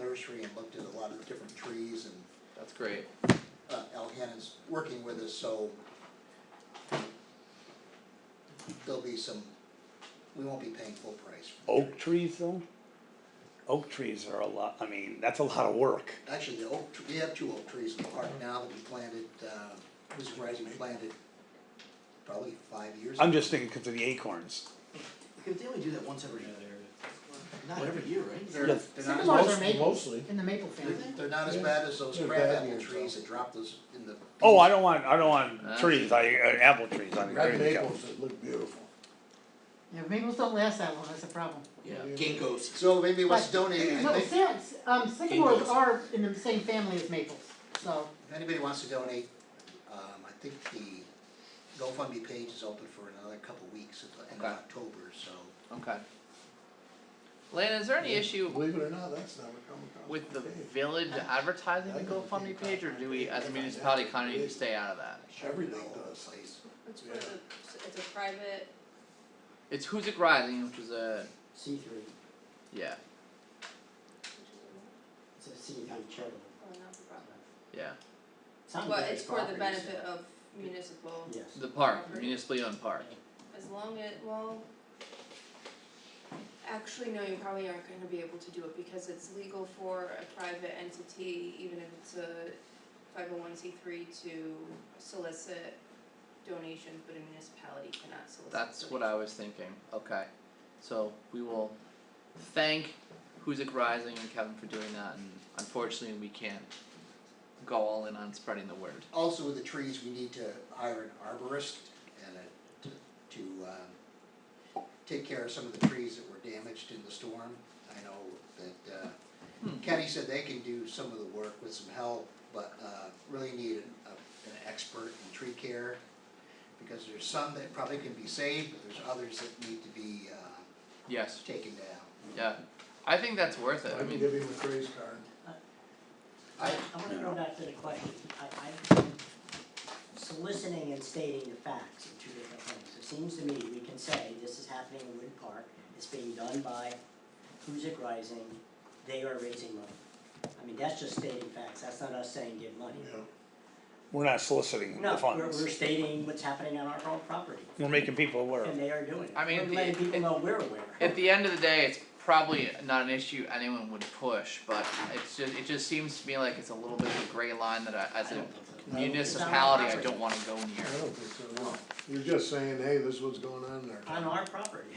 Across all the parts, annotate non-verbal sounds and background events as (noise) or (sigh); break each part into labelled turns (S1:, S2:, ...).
S1: nursery and looked at a lot of different trees and
S2: That's great.
S1: uh, Al Hannon's working with us, so there'll be some, we won't be paying full price. for the
S3: Oak trees though? Oak trees are a lot, I mean, that's a lot of work.
S1: tree. Actually, the oak, tr- we have two oak trees in the park now that we planted, uh, was rising planted probably five years.
S3: I'm
S1: ago.
S3: just thinking because of the acorns.
S4: They only do that once every, not every year, right?
S2: They're,
S3: Yes.
S2: they're not,
S5: Sycamores are
S6: Most-
S5: maples,
S6: mostly.
S5: in the maple family.
S1: They're not as bad as those
S6: They're
S1: crab
S6: bad
S1: apple
S6: ones,
S1: trees
S6: though.
S1: that drop those in the.
S3: Oh, I don't want, I don't want
S2: Ah.
S3: trees, I, uh, apple trees, I
S6: Red
S3: agree with you.
S6: maples that look beautiful.
S5: Yeah, maples don't last that long, that's a problem.
S4: Yeah, ginkgos.
S1: So maybe let's donate, I
S5: No,
S1: think-
S5: since, um, sycamores
S4: Maples.
S5: are in the same family as maples, so,
S1: If anybody wants to donate, um, I think the GoFundMe page is open for another couple weeks at the end of
S2: Okay.
S1: October, so.
S2: okay. Lana, is there any issue
S6: Believe it or not, that's never come across.
S2: with the
S6: my page.
S2: village advertising the GoFundMe page, or do we, as a municipality, kinda need to stay out of that?
S6: Everything
S1: all over the
S6: does.
S1: place.
S7: It's for
S6: Yeah.
S7: the, it's a private,
S2: It's Who's It Rising, which is a,
S8: C three,
S2: yeah,
S8: it's a C three charitable.
S7: oh, not for profit.
S2: yeah,
S8: Sounds
S7: But
S8: like
S7: it's for the
S8: property, so-
S7: benefit of municipal,
S8: Yes.
S2: the park, municipally owned park.
S7: as long as, well. Actually, no, you probably aren't gonna be able to do it because it's legal for a private entity, even if it's a five oh one C three to solicit donations, but a municipality cannot solicit.
S2: That's what I was thinking, okay. So we will thank Who's It Rising and Kevin for doing that, and unfortunately, we can't go all in on spreading the word.
S1: Also with the trees, we need to hire an arborist and a, to, to, um, take care of some of the trees that were damaged in the storm. I know that, uh,
S2: Hmm.
S1: Kenny said they can do some of the work with some help, but, uh, really need an, a- an expert in tree care. Because there's some that probably can be saved, but there's others that need to be, uh,
S2: Yes,
S1: taken down.
S2: yeah. I think that's worth it,
S6: I
S2: I
S6: can
S2: mean,
S6: give him a praise card.
S1: I,
S8: I wanna go back to the question, I, I, soliciting and stating the facts are two different things. It seems to me we can say this is happening in Wood Park, it's being done by Huzik Rising, they are raising money. I mean, that's just stating facts, that's not us saying give money.
S6: Yeah.
S3: We're not soliciting the
S8: No, we're,
S3: funds,
S8: we're stating what's happening on our own property,
S3: we're making people aware.
S8: and they are doing it.
S2: I mean,
S8: We're
S2: the-
S8: letting people
S2: it-
S8: know we're aware.
S2: at the end of the day, it's probably not an issue anyone would push, but it's just, it just seems to me like it's a little bit of a gray line that I, as
S8: I
S2: a
S8: don't think so.
S2: municipality, I don't wanna go near.
S6: I don't think so, no. You're just saying, hey, this is what's going on in
S8: On
S6: there.
S8: our property.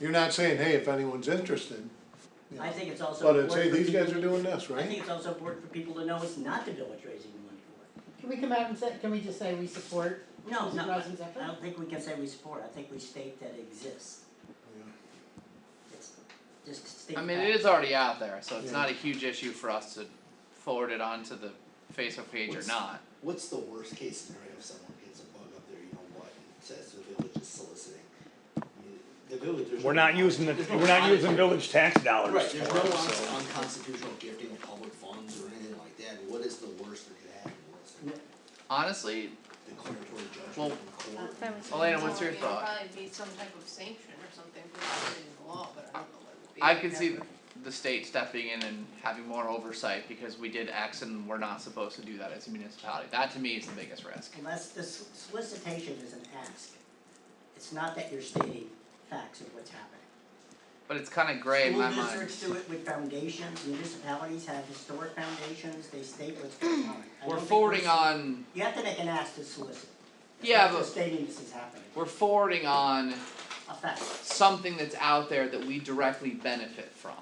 S6: You're not saying, hey, if anyone's interested. you
S8: I
S6: know.
S8: think it's also.
S6: But it's, hey,
S8: important for
S6: these guys
S8: people-
S6: are doing this,
S8: I think
S6: right?
S8: it's also important for people to know it's not the village raising the money for
S5: can we come out and say, can we just say we support?
S8: it. No,
S5: Is it
S8: not,
S5: Rosin's effort?
S8: I don't think we can say we support, I think we state that it exists. It's just state
S2: I
S8: that.
S2: mean, it is already out there, so it's
S6: Yeah.
S2: not a huge issue for us to forward it onto the Facebook page or
S9: What's-
S2: not.
S9: What's the worst case scenario if someone gets a bug up there, you know what, and says the village is soliciting? I mean, The village, there's.
S3: We're
S9: no
S3: not
S9: law-
S3: using the,
S9: there's no
S3: we're not
S9: law-
S3: using village tax dollars
S9: Right,
S3: for
S9: there's no
S3: it,
S9: laws
S3: so.
S9: on unconstitutional gifting of public funds or anything like that, what is the worst that could happen, what's
S2: Honestly,
S9: the declaratory
S2: Well-
S9: judgment from the court?
S2: Elena, what's your thought?
S7: It'd probably be some type of sanction or something for violating the law, but I don't know what it would be.
S2: I could
S7: I've
S2: see
S7: never-
S2: the state stepping in and having more oversight because we did X and we're not supposed to do that as a municipality. That to me is the biggest risk.
S8: Unless the s- solicitation is an ask, it's not that you're stating facts of what's happening.
S2: But it's kinda gray in my
S8: School
S2: mind.
S8: districts do it with foundations, municipalities have historic foundations, they state what's going on. I don't
S2: We're
S8: think
S2: forwarding
S8: we're-
S2: on,
S8: You have to make an ask to solicit. It's
S2: Yeah,
S8: not
S2: but-
S8: just stating this is happening,
S2: we're forwarding on
S8: a fact.
S2: something that's out there that we directly benefit from.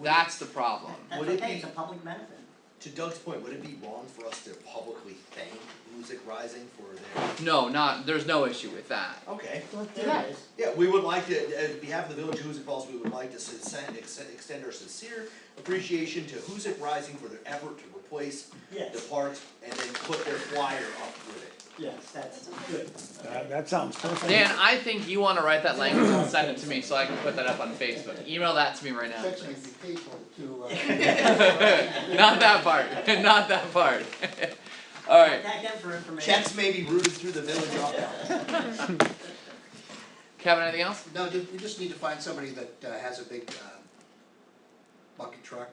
S2: That's the problem.
S8: That's
S9: Would it
S8: okay,
S9: be-
S8: it's a public benefit.
S9: To Doug's point, would it be wrong for us to publicly thank Music Rising for their,
S2: No, not, there's no issue with that.
S9: okay,
S5: Let's do
S9: there
S5: that.
S9: it is. Yeah, we would like to, uh, on behalf of the Village of Hoosick Falls, we would like to send, extend, extend our sincere appreciation to Hoosick Rising for their effort to replace the
S8: Yes,
S9: parks and then put their flyer up with it.
S8: yes, that's
S7: That's okay.
S8: good.
S3: That, uh, that sounds perfect.
S2: Dan, I think you wanna write that language and send it to me so I can put that up on Facebook. Email that to me right now, (laughs)
S1: Sex may
S2: please.
S1: be painful to, uh. (laughs)
S2: Not that part, (laughs) not that part. (laughs) Alright,
S8: Thank them for information.
S9: Checks may be routed through the village office.
S2: Kevin, anything else?
S1: No, ju- we just need to find somebody that uh, has a big, uh, bucket truck